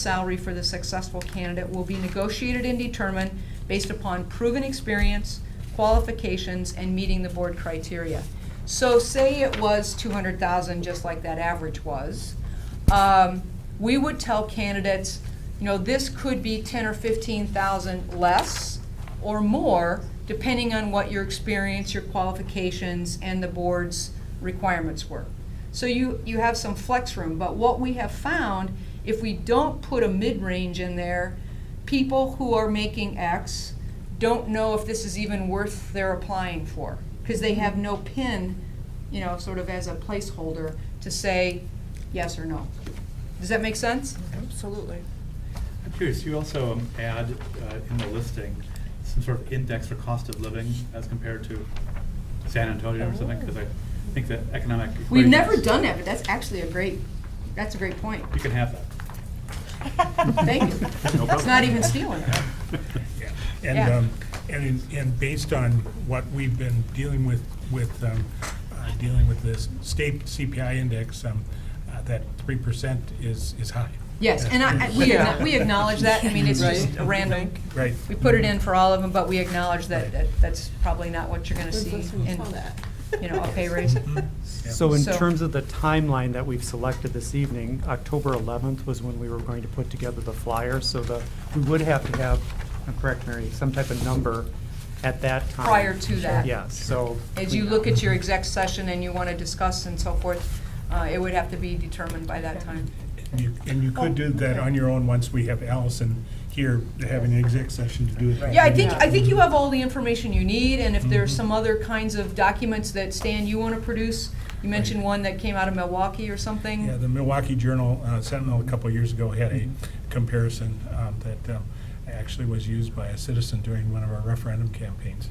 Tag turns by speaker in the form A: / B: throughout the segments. A: salary for the successful candidate will be negotiated and determined based upon proven experience, qualifications, and meeting the board criteria. So say it was two hundred thousand, just like that average was, um, we would tell candidates, you know, this could be ten or fifteen thousand less or more, depending on what your experience, your qualifications, and the board's requirements were. So you, you have some flex room, but what we have found, if we don't put a mid-range in there, people who are making X don't know if this is even worth their applying for, because they have no pin, you know, sort of as a placeholder to say yes or no. Does that make sense?
B: Absolutely.
C: I'm curious, you also um, add uh, in the listing some sort of index for cost of living as compared to San Antonio or something, because I think that economic.
A: We've
C: equations-
A: never done that, but that's actually a great, that's a great point.
C: You can have that.
A: Thank you.
C: No
A: It's not even stealing.
D: And,
A: Yeah.
D: um, and, and based on what we've been dealing with, with, um, uh, dealing with this state CPI index, um, uh, that three percent is, is high.
A: Yes, and I, I- we, acknow- we acknowledge that, I mean, it's just a random,
D: Right.
A: we put it in for all of them, but we acknowledge that, that that's probably not what you're gonna see in, you know, a pay raise.
D: Yeah.
E: So in
A: So-
E: terms of the timeline that we've selected this evening, October 11th was when we were going to put together the flyer, so the, we would have to have, I'm correct, Mary, some type of number at that time.
A: Prior to that.
E: Yes, so.
A: As you look at your exec session and you wanna discuss and so forth, uh, it would have to be determined by that time.
D: And you- And you could do
A: Oh,
D: that on your own once we have Allison here having an exec session to do it.
A: Yeah, I think, I think you have all the information you need, and if there's some other kinds of documents that, Stan, you wanna produce, you mentioned one that came out of Milwaukee or something.
D: Yeah, the Milwaukee Journal uh, Sentinel a couple of years ago had a comparison um, that um, actually was used by a citizen during one of our referendum campaigns.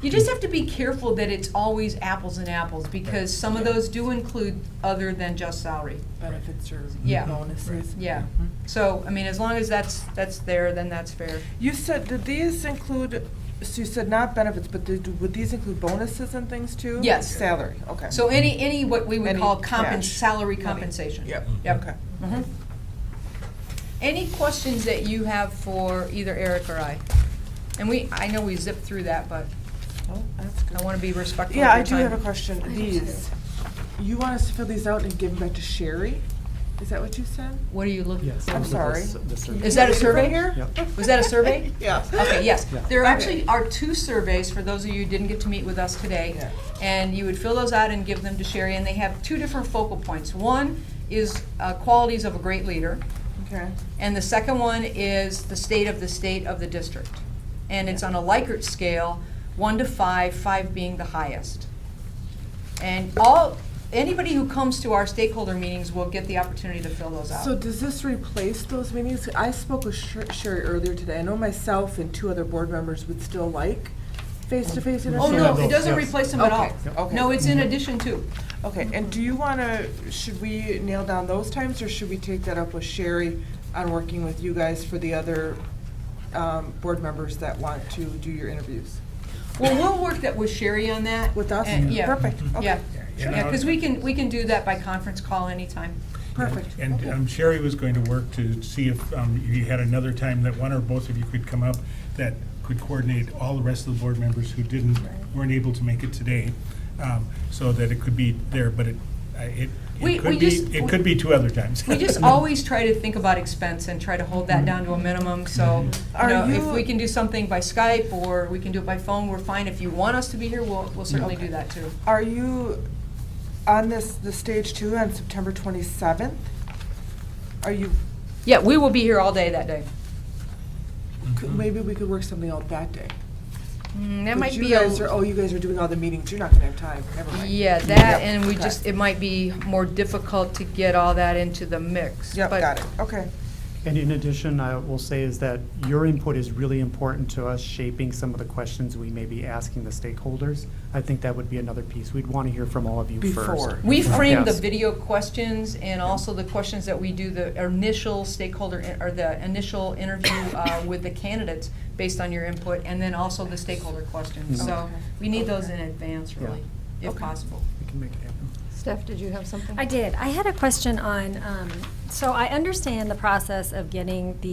A: You just have to be careful that it's always apples and apples, because some of those do include other than just salary.
B: Benefits or
A: Yeah.
B: bonuses.
A: Yeah, so, I mean, as long as that's, that's there, then that's fair.
B: You said, did these include, so you said not benefits, but did, would these include bonuses and things too?
A: Yes.
B: Salary, okay.
A: So any, any what we would
B: Any
A: call compens,
B: cash
A: salary
B: money.
A: compensation.
B: Yep.
A: Yep.
B: Okay.
A: Mhm. Any questions that you have for either Eric or I? And we, I know we zipped through that, but
B: Oh, that's good.
A: I want to be respectful
B: Yeah, I
A: of
B: do
A: your
B: have a
A: time.
B: question. These, you want us to fill these out and give them back to Sherry? Is that what you said?
A: What are you looking
E: Yes.
A: for?
B: I'm
E: those are the-
B: sorry.
E: the surveys.
A: Is that a
B: Is it
A: survey?
B: right here?
E: Yep.
A: Was that a survey?
B: Yeah.
A: Okay, yes.
E: Yeah.
A: There
B: Okay.
A: actually are two surveys, for those of you who didn't get to meet with us today.
B: Yeah.
A: And you would fill those out and give them to Sherry, and they have two different focal points. One is uh, qualities of a great leader,
B: Okay.
A: and the second one is the state of the state of the district. And it's on a Likert scale, one to five, five being the highest. And all, anybody who comes to our stakeholder meetings will get the opportunity to fill those out.
B: So does this replace those meetings? I spoke with Sher- Sherry earlier today. I know myself and two other board members would still like face-to-face
A: Oh,
B: interviews.
A: no, it doesn't replace them at all.
B: Okay, okay. Mm-hmm.
A: No, it's in addition to.
B: Okay, and do you want to, should we nail down those times, or should we take that up with Sherry on working with you guys for the other um, board members that want to do your interviews?
A: Well, we'll work that with Sherry on that.
B: With us?
A: and- Yeah.
B: Perfect,
A: Yeah,
B: okay,
D: Sure.
A: yeah, because we can, we can do that by conference call anytime.
B: perfect.
A: Oh.
D: And um, Sherry was going to work to see if um, you had another time that one or both of you could come up that could coordinate all the rest of the board members who didn't, weren't able to make it today, um, so that it could be there, but it, I- it,
A: We-
D: it
A: we
D: could be,
A: just-
D: it could be two other times.
A: We just always try to think about expense and try to hold that down to a minimum, so, you
B: Are
A: know, if
B: you-
A: we can do something by Skype or we can do it by phone, we're fine. If you want us to be here, we'll, we'll certainly do that too.
B: Are you on this, the stage two on September 27th? Are you,
A: Yeah, we will be here all day that day.
B: could-
A: Mm-hmm.
B: maybe we could work something out that day?
A: Mm, That
B: But
A: might
B: you
A: be a,
B: guys are- Oh, you guys are doing all the meetings, you're not going to have time, never mind.
A: yeah, that,
B: Yeah,
A: and we
B: okay.
A: just, it might be more difficult to get all that into the mix.
B: Yep,
A: but-
B: got it, okay.
E: And in addition, I will say is that your input is really important to us shaping some of the questions we may be asking the stakeholders. I think that would be another piece. We'd want to hear from all of you first.
B: Before.
A: We frame the
E: Yes.
A: video questions and also the questions that we do, the initial stakeholder, or the initial interview uh, with the candidates based on your input, and then also the stakeholder questions. So
B: Mm-hmm. Okay.
A: we need those in advance, really,
E: Yeah.
A: if
B: Okay.
A: possible.
E: We can make it happen.
F: Steph, did you have something?
G: I did. I had a question on, um, so I understand the process of getting the